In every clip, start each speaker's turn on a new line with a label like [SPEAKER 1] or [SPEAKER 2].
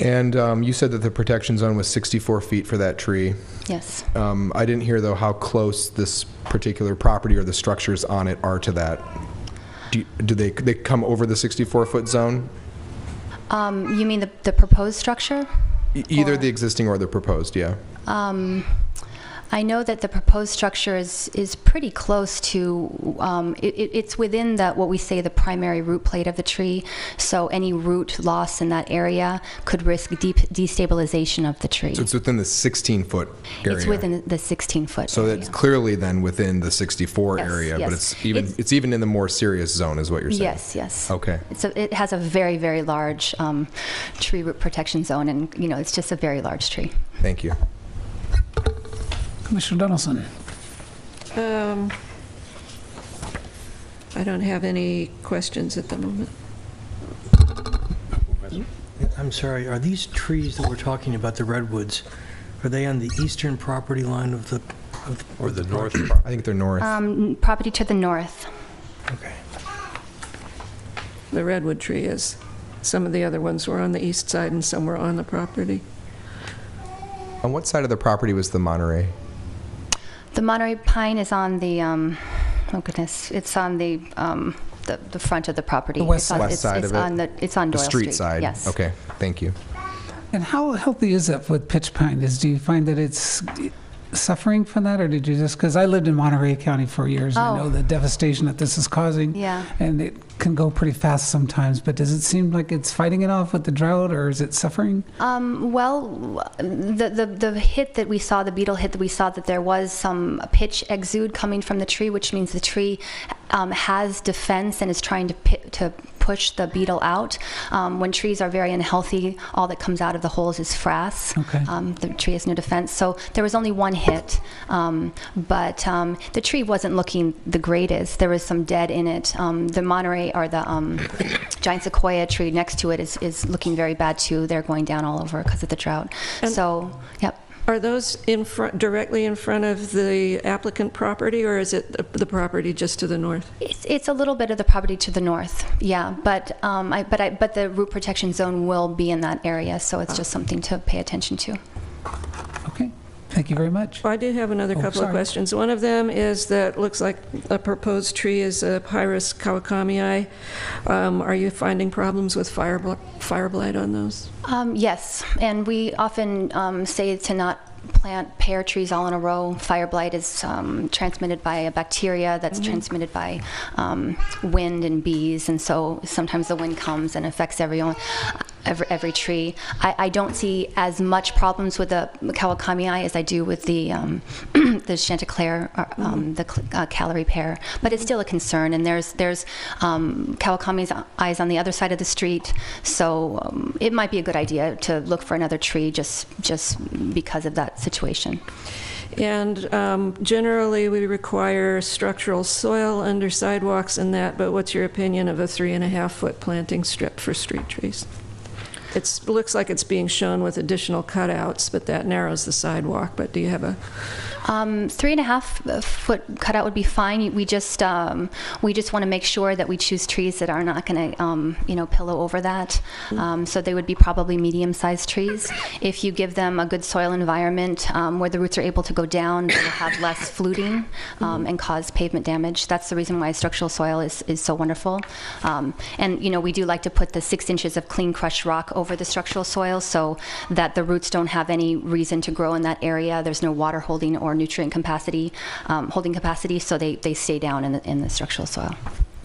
[SPEAKER 1] And um, you said that the protection zone was 64 feet for that tree.
[SPEAKER 2] Yes.
[SPEAKER 1] Um, I didn't hear, though, how close this particular property or the structures on it are to that. Do you- do they, they come over the 64-foot zone?
[SPEAKER 2] Um, you mean the, the proposed structure?
[SPEAKER 1] E- Either
[SPEAKER 2] Or-
[SPEAKER 1] the existing or the proposed, yeah.
[SPEAKER 2] Um, I know that the proposed structure is, is pretty close to, um, it, it- it's within the, what we say, the primary root plate of the tree, so any root loss in that area could risk deep destabilization of the tree.
[SPEAKER 1] So it's within the 16-foot area.
[SPEAKER 2] It's within the 16-foot
[SPEAKER 1] So that's clearly then within the 64
[SPEAKER 2] Yes,
[SPEAKER 1] area, but
[SPEAKER 2] yes.
[SPEAKER 1] it's even,
[SPEAKER 2] It's-
[SPEAKER 1] it's even in the more serious zone, is what you're saying?
[SPEAKER 2] Yes, yes.
[SPEAKER 1] Okay.
[SPEAKER 2] It's a, it has a very, very large um, tree root protection zone, and, you know, it's just a very large tree.
[SPEAKER 1] Thank you.
[SPEAKER 3] Commissioner Donaldson.
[SPEAKER 4] Um, I don't have any questions at the moment.
[SPEAKER 5] I'm sorry, are these trees that we're talking about, the redwoods, are they on the eastern property line of the? of-
[SPEAKER 6] Or the
[SPEAKER 5] of
[SPEAKER 6] north,
[SPEAKER 5] property?
[SPEAKER 1] I think they're north.
[SPEAKER 2] Um, Property to the north.
[SPEAKER 5] Okay.
[SPEAKER 4] The redwood tree is. Some of the other ones were on the east side and some were on the property.
[SPEAKER 1] On what side of the property was the Monterey?
[SPEAKER 2] The Monterey pine is on the, um, oh goodness, it's on the, um, the, the front of the property.
[SPEAKER 1] The west
[SPEAKER 2] It's on-
[SPEAKER 1] side. West
[SPEAKER 2] it's-
[SPEAKER 1] side
[SPEAKER 2] it's
[SPEAKER 1] of it.
[SPEAKER 2] on the- It's on
[SPEAKER 1] The
[SPEAKER 2] Doyle Street.
[SPEAKER 1] street side?
[SPEAKER 2] Yes.
[SPEAKER 1] Okay, thank you.
[SPEAKER 3] And how healthy is that with pitch pine? Is, do you find that it's suffering from that, or did you just, because I lived in Monterey County for years, I
[SPEAKER 2] Oh.
[SPEAKER 3] know the devastation that this is causing.
[SPEAKER 2] Yeah.
[SPEAKER 3] And it can go pretty fast sometimes, but does it seem like it's fighting it off with the drought, or is it suffering?
[SPEAKER 2] Um, well, the, the, the hit that we saw, the beetle hit that we saw, that there was some pitch exude coming from the tree, which means the tree um, has defense and is trying to, pi- to push the beetle out. Um, when trees are very unhealthy, all that comes out of the holes is frass.
[SPEAKER 3] Okay.
[SPEAKER 2] Um, the tree has no defense. So there was only one hit, um, but um, the tree wasn't looking the greatest. There was some dead in it. Um, the Monterey or the um, giant sequoia tree next to it is, is looking very bad too. They're going down all over because of the drought.
[SPEAKER 4] And-
[SPEAKER 2] so, yep.
[SPEAKER 4] Are those in front, directly in front of the applicant property, or is it the- the property just to the north?
[SPEAKER 2] It's, it's a little bit of the property to the north, yeah, but um, I, but I, but the root protection zone will be in that area, so it's just something to pay attention to.
[SPEAKER 3] Okay, thank you very much.
[SPEAKER 4] Well, I do have another
[SPEAKER 3] Oh,
[SPEAKER 4] couple of
[SPEAKER 3] sorry.
[SPEAKER 4] questions. One of them is that looks like a proposed tree is a Pyrus kawakamii. Um, Are you finding problems with fire bl- fire blight on those?
[SPEAKER 2] Um, yes, and we often um, say to not plant pear trees all in a row. Fire blight is um, transmitted by a bacteria that's transmitted by um, wind and bees, and so sometimes the wind comes and affects everyone. uh, Every, every tree. I, I don't see as much problems with the Kawakamii as I do with the um, the Chanticleer, uh, um, the cl- uh, calorie pear, but it's still a concern. And there's there's um, Kawakami's eyes on the other side of the street, so um, it might be a good idea to look for another tree just just because of that situation.
[SPEAKER 4] And um, generally, we require structural soil under sidewalks and that, but what's your opinion of a three and a half foot planting strip for street trees? It looks like it's being shown with additional cutouts, but that narrows the sidewalk, but do you have a,
[SPEAKER 2] Um, three and a half uh, foot cutout would be fine. We just um, we just want to make sure that we choose trees that are not going to um, you know pillow over that. Um, so they would be probably medium-sized trees. If you give them a good soil environment um, where the roots are able to go down, they will have less fluting um, and cause pavement damage. That's the reason why structural soil is, is so wonderful. Um, and you know we do like to put the six inches of clean crushed rock over the structural soil so that the roots don't have any reason to grow in that area. There's no water holding or nutrient capacity, um, holding capacity, so they, they stay down in the, in the structural soil.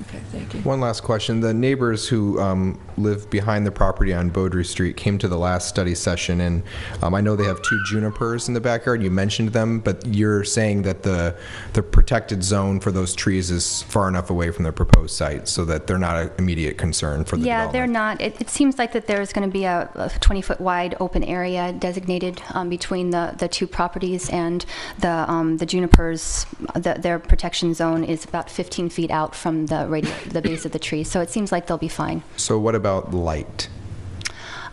[SPEAKER 4] okay, thank you.
[SPEAKER 1] One last question. The neighbors who um, live behind the property on Beaudry Street came to the last study session, and um, I know they have two junipers in the backyard. You mentioned them, but you're saying that the the protected zone for those trees is far enough away from the proposed site so that they're not an immediate concern for the
[SPEAKER 2] Yeah, they're not.
[SPEAKER 1] development.
[SPEAKER 2] It, it seems like that there's going to be a, a 20 foot wide open area designated um, between the, the two properties and the um, the junipers. The, their protection zone is about 15 feet out from the radi- the base of the tree, so it seems like they'll be fine.
[SPEAKER 1] So what about light?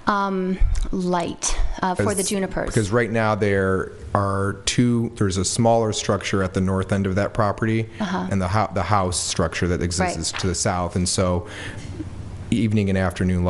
[SPEAKER 2] Um, light uh, for the
[SPEAKER 1] Because-
[SPEAKER 2] junipers.
[SPEAKER 1] Because right now there are two, there's a smaller structure at the north end of that property
[SPEAKER 2] Uh-huh.
[SPEAKER 1] and the, hou- the house structure that exists
[SPEAKER 2] Right.
[SPEAKER 1] is to the south. And so evening and afternoon